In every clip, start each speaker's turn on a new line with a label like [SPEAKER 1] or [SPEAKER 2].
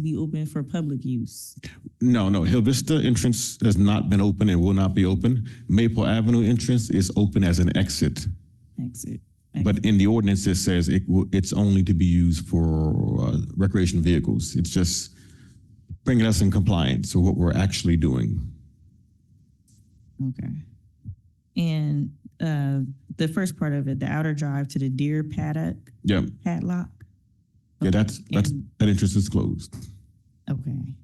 [SPEAKER 1] be open for public use.
[SPEAKER 2] No, no, Hill Vista entrance has not been open and will not be open. Maple Avenue entrance is open as an exit.
[SPEAKER 1] Exit.
[SPEAKER 2] But in the ordinance, it says it, will- it's only to be used for uh, recreation vehicles. It's just bringing us in compliance with what we're actually doing.
[SPEAKER 1] Okay. And, uh, the first part of it, the outer drive to the deer paddock,
[SPEAKER 2] Yeah,
[SPEAKER 1] padlock?
[SPEAKER 2] yeah, that's, that's,
[SPEAKER 1] And-
[SPEAKER 2] that entrance is closed.
[SPEAKER 1] Okay.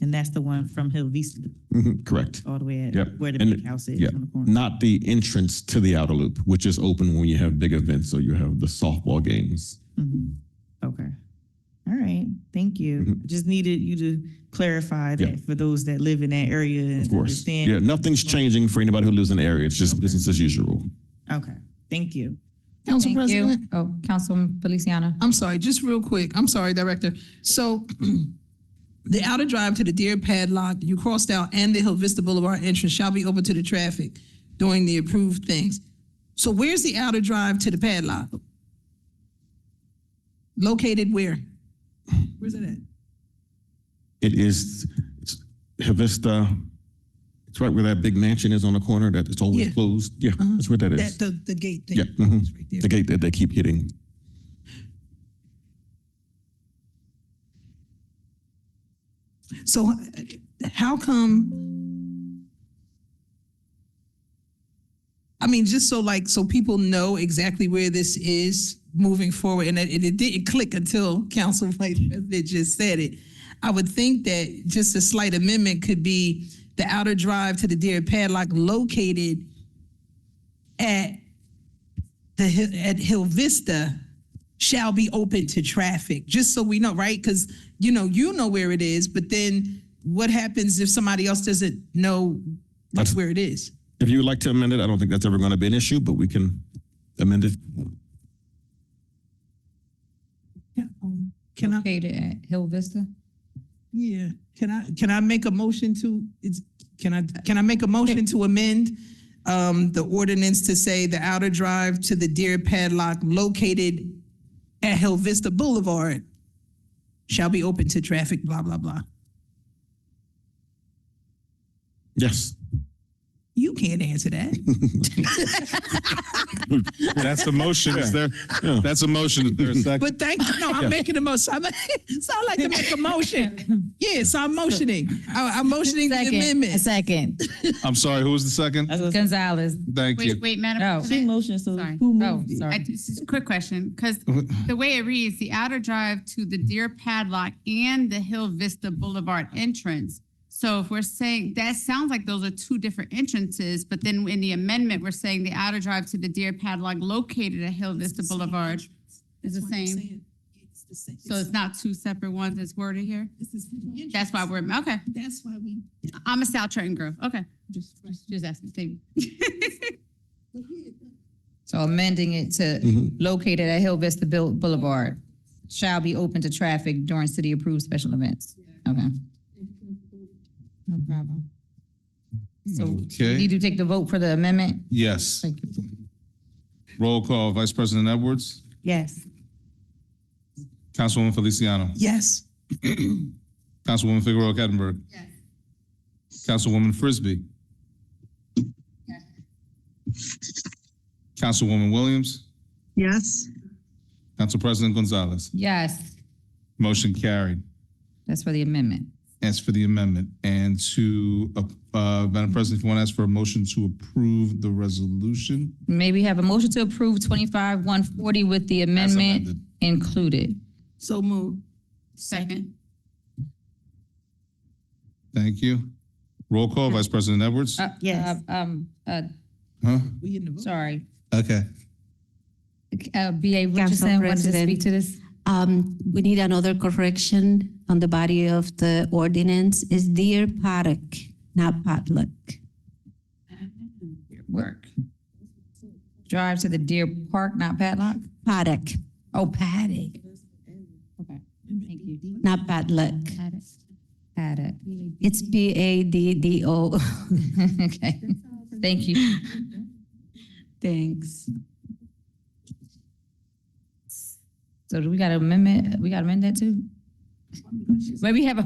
[SPEAKER 1] And that's the one from Hill Vista
[SPEAKER 2] Mhm, Correct.
[SPEAKER 1] all the way
[SPEAKER 2] Yep.
[SPEAKER 1] at where the
[SPEAKER 2] And-
[SPEAKER 1] big house is
[SPEAKER 2] yeah.
[SPEAKER 1] on the corner.
[SPEAKER 2] Not the entrance to the outer loop, which is open when you have big events, so you have the softball games.
[SPEAKER 1] Mhm. Okay. All right, thank you.
[SPEAKER 2] Mhm.
[SPEAKER 1] Just needed you to clarify
[SPEAKER 2] Yeah.
[SPEAKER 1] that for those that live in that area and
[SPEAKER 2] Of course.
[SPEAKER 1] understand.
[SPEAKER 2] Yeah, nothing's changing for anybody who lives in the area. It's just business as usual.
[SPEAKER 1] Okay, thank you.
[SPEAKER 3] Council
[SPEAKER 4] Thank you.
[SPEAKER 3] President,
[SPEAKER 4] Oh, Councilman Feliciano.
[SPEAKER 3] I'm sorry, just real quick. I'm sorry, Director. So the outer drive to the Deer Padlock you crossed out and the Hill Vista Boulevard entrance shall be open to the traffic during the approved things. So where's the outer drive to the padlock? Located where? Where's it at?
[SPEAKER 2] It is it's Havista. It's right where that big mansion is on the corner that it's always
[SPEAKER 3] Yeah. Uh-huh.
[SPEAKER 2] closed. Yeah, that's where that is.
[SPEAKER 3] That, the, the gate thing?
[SPEAKER 2] Yeah, mhm.
[SPEAKER 3] It's right there.
[SPEAKER 2] the gate that they keep hitting.
[SPEAKER 3] So uh, how come? I mean, just so like, so people know exactly where this is moving forward and it, it didn't click until council vice president just said it. I would think that just a slight amendment could be the outer drive to the Deer Padlock located at the, Hi- at Hill Vista shall be open to traffic, just so we know, right? Because, you know, you know where it is, but then what happens if somebody else doesn't know like,
[SPEAKER 2] That's-
[SPEAKER 3] where it is?
[SPEAKER 2] If you would like to amend it, I don't think that's ever going to be an issue, but we can amend it.
[SPEAKER 3] um, Can I,
[SPEAKER 4] Located at Hill Vista.
[SPEAKER 3] yeah, can I, can I make a motion to, it's, can I, can I make a motion to amend um, the ordinance to say the outer drive to the Deer Padlock located at Hill Vista Boulevard shall be open to traffic, blah, blah, blah?
[SPEAKER 2] Yes.
[SPEAKER 3] You can't answer that.
[SPEAKER 5] That's a motion. Is there,
[SPEAKER 2] Yeah.
[SPEAKER 5] that's a motion. Is there a second?
[SPEAKER 3] But thank you. No, I'm making a motion. I'm, so I like to make a motion. Yes, I'm motioning. I, I'm motioning the
[SPEAKER 4] Second,
[SPEAKER 3] amendment.
[SPEAKER 4] second.
[SPEAKER 5] I'm sorry, who was the second?
[SPEAKER 1] I was gonna say,
[SPEAKER 4] Gonzalez.
[SPEAKER 5] Thank you.
[SPEAKER 6] Wait, wait,
[SPEAKER 4] No.
[SPEAKER 6] Madam
[SPEAKER 1] She
[SPEAKER 6] President.
[SPEAKER 1] motioned, so
[SPEAKER 6] Sorry.
[SPEAKER 1] who
[SPEAKER 4] Oh,
[SPEAKER 1] moved it?
[SPEAKER 6] I-
[SPEAKER 4] sorry.
[SPEAKER 6] This is a quick question, because the way it reads, the outer drive to the Deer Padlock and the Hill Vista Boulevard entrance. So if we're saying, that sounds like those are two different entrances, but then in the amendment, we're saying the outer drive to the Deer Padlock located at Hill Vista Boulevard is the same. So it's not two separate ones that's worded here? That's why we're, okay.
[SPEAKER 3] That's why we.
[SPEAKER 6] I'm a South Trenton girl. Okay. Just, just- just asking, Steve.
[SPEAKER 4] So amending it to
[SPEAKER 2] Mhm.
[SPEAKER 4] located at Hill Vista Bill- Boulevard shall be open to traffic during city-approved special events. Okay. No problem. So
[SPEAKER 5] Okay,
[SPEAKER 4] need to take the vote for the amendment?
[SPEAKER 5] yes.
[SPEAKER 4] Thank you.
[SPEAKER 5] Roll call, Vice President Edwards,
[SPEAKER 1] Yes.
[SPEAKER 5] Councilwoman Feliciano,
[SPEAKER 3] Yes.
[SPEAKER 5] Councilwoman Figueroa Kettenberg. Councilwoman Frisbee. Councilwoman Williams,
[SPEAKER 3] Yes.
[SPEAKER 5] Council President Gonzalez.
[SPEAKER 4] Yes,
[SPEAKER 5] Motion carried.
[SPEAKER 4] that's for the amendment.
[SPEAKER 5] As for the amendment and to, uh, uh, Madam President, if you want to ask for a motion to approve the resolution.
[SPEAKER 4] May we have a motion to approve twenty-five one forty with the
[SPEAKER 5] as
[SPEAKER 4] amendment
[SPEAKER 5] amended.
[SPEAKER 4] included?
[SPEAKER 3] So move.
[SPEAKER 6] Second.
[SPEAKER 5] Thank you. Roll call, Vice President Edwards.
[SPEAKER 4] Uh,
[SPEAKER 1] Yes.
[SPEAKER 4] uh, Um, uh,
[SPEAKER 5] Huh?
[SPEAKER 3] We in the vote.
[SPEAKER 4] sorry,
[SPEAKER 5] Okay.
[SPEAKER 4] uh, BA Richardson wanted to
[SPEAKER 7] President.
[SPEAKER 4] speak to this?
[SPEAKER 7] Um, we need another correction on the body of the ordinance. Is deer paddock, not potluck.
[SPEAKER 4] Work. Drive to the Deer Park, not padlock?
[SPEAKER 7] Paddock,
[SPEAKER 4] Oh, paddock. Okay, thank you.
[SPEAKER 7] not padluck.
[SPEAKER 4] Paddock. Paddock.
[SPEAKER 7] It's P A D D O.
[SPEAKER 4] Okay, thank you.
[SPEAKER 7] Thanks.
[SPEAKER 4] So do we got to amendment, we got to amend that too? Maybe have a